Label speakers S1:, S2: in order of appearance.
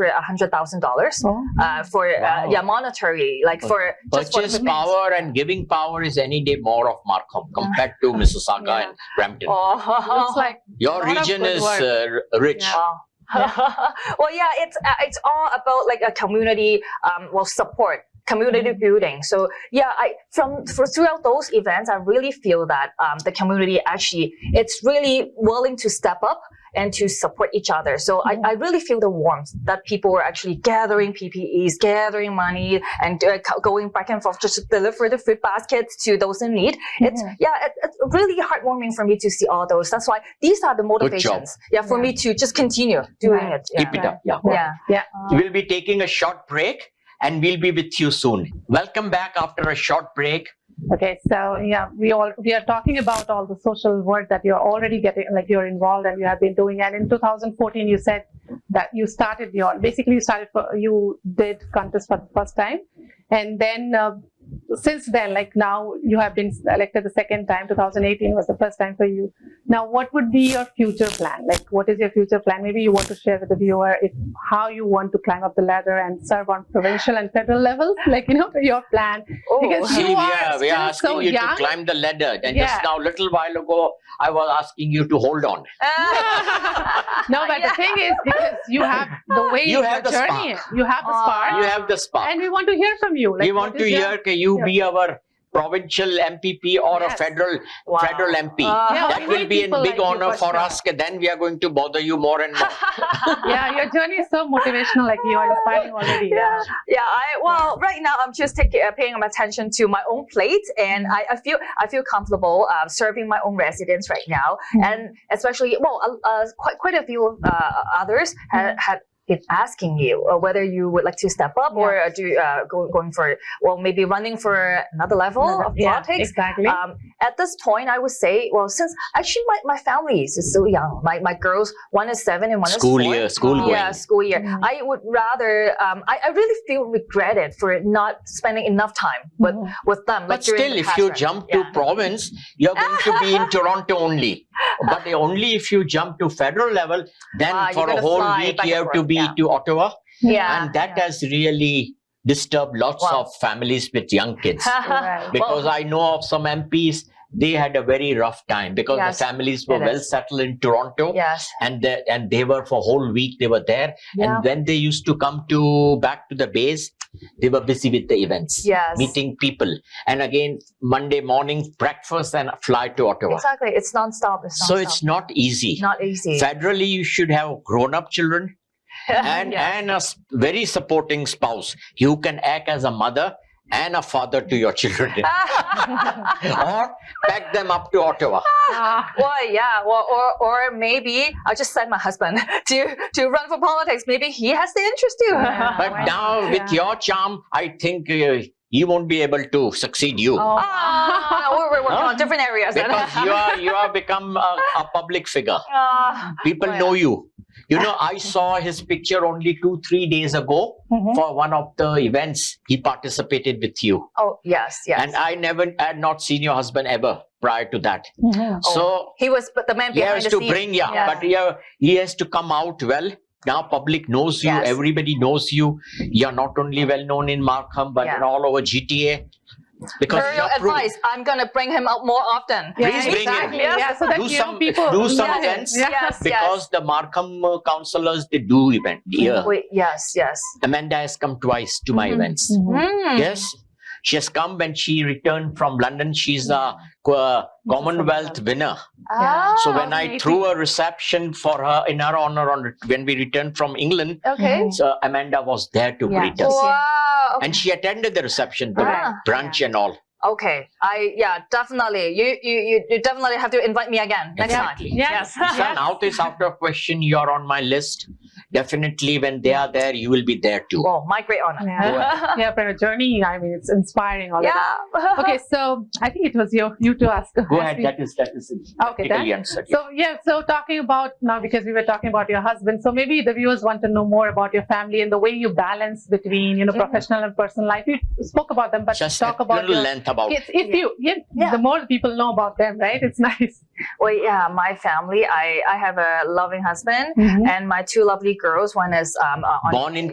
S1: for hundred thousand dollars
S2: Oh.
S1: uh, for
S3: Wow.
S1: uh, yeah monetary like for just for
S3: Purchase
S1: equipment.
S3: power and giving power is any day more of Markham compared to Mississauga
S1: Yeah.
S3: and Brampton.
S1: Oh,
S2: Looks like
S3: Your
S2: lot of
S3: region
S2: good
S3: is
S2: work.
S3: uh, r- rich.
S2: Yeah.
S1: Wow. well, yeah, it's uh, it's all about like a community um, well support, community
S2: Mm-hmm.
S1: building. So yeah, I from for, throughout those events, I really feel that um, the community actually it's really willing to step up and to support each other. So
S2: Mm-hmm.
S1: I, I really feel the warmth that people are actually gathering PPEs, gathering money, and uh, co- going back and forth just to deliver the food baskets to those in need. It's
S2: Mm-hmm.
S1: yeah, it, it's really heartwarming for me to see all those. That's why these are the
S3: job.
S1: motivations. Yeah, for
S2: Yeah.
S1: me to just continue doing
S2: Right.
S1: it. Yeah.
S3: Keep it up. Yeah.
S1: Yeah.
S3: We'll be taking a short break and we'll be with you soon. Welcome back after a short break.
S2: Okay, so yeah, we all we are talking about all the social work that you're already getting, like you're involved and you have been doing. And in 2014, you said that you started your basically you started for you did contest for the first time, and then uh, since then, like now you have been elected the second time. 2018 was the first time for you. Now, what would be your future plan? Like, what is your future plan? Maybe you want to share with the viewer if how you want to climb up the ladder and serve on provincial and federal levels. Like, you know, your plan.
S1: Oh.
S2: Because You
S3: See, we
S2: are
S3: are, we are
S2: still
S3: asking
S2: so
S3: you
S2: young.
S3: to climb the ladder. And
S2: Yeah.
S3: just now, little while ago, I was asking you to hold on.
S2: No, but the thing is, because you have the way
S3: You have
S2: your
S3: the
S2: journey, you have the
S1: Aw.
S2: spark,
S3: You have the spark.
S2: Uh, and we want to hear from you.
S3: we
S2: what
S3: want
S2: is
S3: to
S2: your-
S3: hear can you
S2: Yeah.
S3: be our provincial MPP or
S2: Yes.
S3: a federal
S1: Wow.
S3: federal MP.
S1: Uh,
S2: Yeah,
S3: that
S2: we
S3: will
S2: need
S3: be a
S2: people like
S3: big
S2: you
S3: honor for
S2: sure.
S3: us. Then we are going to bother you more and more.
S2: Yeah, your journey is so motivational. Like you are inspiring already. Yeah.
S1: yeah. I, well, right now I'm just taking uh, paying attention to my own plate, and I, I feel I feel comfortable uh, serving my own residents right now,
S2: Mhm.
S1: and especially well, uh, uh, quite quite a few uh, others had.
S2: Mm.
S1: had been asking you uh, whether you would like to step up or uh, do uh, go, going for well maybe running for another level of
S2: yeah,
S1: politics
S2: exactly.
S1: Um, at this point, I would say, well, since actually my, my family is still young, my, my girls, one is seven and one
S3: School
S1: is four.
S3: year, school
S1: yeah,
S3: going.
S1: school year.
S2: Mm.
S1: I would rather, um, I, I really feel regretted for not spending enough time with,
S2: Mhm.
S1: with them. like
S3: But
S1: during
S3: still,
S1: the
S3: if you
S1: classroom.
S3: jump to
S1: Yeah.
S3: province, you're going to be in Toronto only. But only if you jump to federal level, then
S1: Ah, you're
S3: for a
S1: gonna
S3: whole
S1: fly
S3: week
S1: back
S3: you
S1: and
S3: have to
S1: forth,
S3: be
S1: yeah.
S3: to Ottawa,
S1: Yeah.
S3: and that has really disturbed lots
S1: Wow.
S3: of families with young kids.
S2: Right.
S3: because I know of some MPs, they had a very rough time because
S1: Yes,
S3: the families were
S1: it
S3: well
S1: is.
S3: settled in Toronto,
S1: yes.
S3: and they, and they were for whole week they were there,
S1: Yeah.
S3: and when they used to come to back to the base, they were busy with the events,
S1: Yes.
S3: meeting people, and again Monday morning breakfast and fly to Ottawa.
S1: Exactly. It's nonstop. It's nonstop.
S3: So it's not easy.
S1: not easy.
S3: Federally, you should have grown-up children and
S1: yeah.
S3: and a s- very supporting spouse who can act as a mother and a father to your children or pack them up to Ottawa.
S2: Ah,
S1: Well, yeah, well, or or maybe I'll just send my husband to to run for politics. Maybe he has the interest too.
S2: Yeah.
S3: But
S2: Wow.
S3: now, with
S2: Yeah.
S3: your charm, I think uh, he won't be able to succeed you
S2: oh.
S1: Ah, we're, we're working
S3: Huh?
S1: on different areas. then.
S3: because you are you are become a, a public figure.
S1: Ah,
S3: People
S1: Oh,
S3: know you. You know, I saw his picture only two three days ago
S1: Mm-hmm.
S2: Mhm.
S3: for one of the events he participated with you,
S1: oh yes, yes.
S3: and I never I had not seen your husband ever prior to that.
S2: Mhm.
S1: Oh,
S3: So
S1: he was but the man
S3: he
S1: behind
S3: has
S1: the
S3: to
S1: scene.
S3: bring yeah,
S1: Yeah.
S3: but yeah, he has to come out well now public knows you
S1: Yes.
S3: everybody knows you you're not only well known in markham but
S1: Yeah.
S3: in all over gta because
S1: Her
S3: you're pro-
S1: advice. I'm gonna bring him out more often.
S2: Yeah,
S3: Please bring him.
S2: exactly.
S1: Yes.
S2: Yeah, so that
S3: Do
S2: you know
S3: some-
S2: people
S3: do some
S2: Yeah.
S3: events.
S2: Yeah.
S1: Yes,
S3: because the markham uh, councillors they do event
S1: yes.
S3: yeah
S1: Wait, yes, yes.
S3: amanda has come twice to my
S2: Mhm.
S3: events
S2: Mhm.
S1: Mm.
S3: yes she has come when she returned from london she's a
S2: Mm-hmm.
S3: co- uh, commonwealth winner
S1: Ah,
S3: so when i
S2: amazing.
S3: threw a reception for her in her honor on when we returned from england
S1: okay.
S2: Mhm.
S3: So Amanda was there to
S2: Yeah.
S3: greet us.
S1: Wow.
S3: And she attended the reception, the
S1: Ah.
S3: brunch and all.
S1: Okay. I yeah, definitely. You you you, you definitely have to invite me again next time.
S3: Exactly.
S2: Yes.
S3: So now this out of question, you're on my list. Definitely when they are there, you will be there too.
S1: Oh, my great honor.
S2: Yeah. yeah, for your journey, I mean, it's inspiring already.
S1: Yeah.
S2: Okay, so I think it was your you to ask. ask
S3: Go ahead,
S2: me.
S3: that is that is it.
S2: Okay, that-
S3: Practically answered.
S2: So yeah, so talking about now because we were talking about your husband, so maybe the viewers want to know more about your family and the way you balance between you know
S1: Mhm.
S2: professional and personal life. You spoke about them, but
S3: Just
S2: talk
S3: a
S2: about
S3: little
S2: your
S3: length about
S2: kids. If
S1: Yeah.
S2: you yeah,
S1: Yeah.
S2: the more people know about them, right? It's nice.
S1: Mm-hmm. Well, yeah, my family. I I have a loving husband. and my two lovely
S4: girls. One is um, uh, on
S1: Born in